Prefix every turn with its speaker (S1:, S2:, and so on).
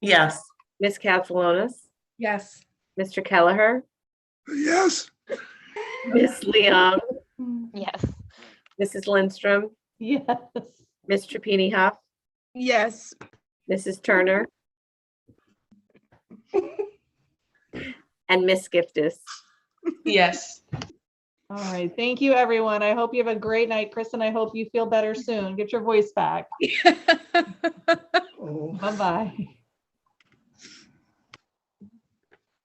S1: Yes.
S2: Ms. Katsalonis,
S3: Yes.
S2: Mr. Kelleher,
S4: Yes,
S2: Ms. Leong,
S5: Yes.
S2: Mrs. Lindstrom,
S6: Yes.
S2: Ms. Trapani Huff,
S3: Yes.
S2: Mrs. Turner, and Ms. Giftis.
S1: Yes.
S6: All right. Thank you, everyone. I hope you have a great night, Kristen. I hope you feel better soon. Get your voice back.
S3: Bye
S4: oh,
S6: Bye-bye.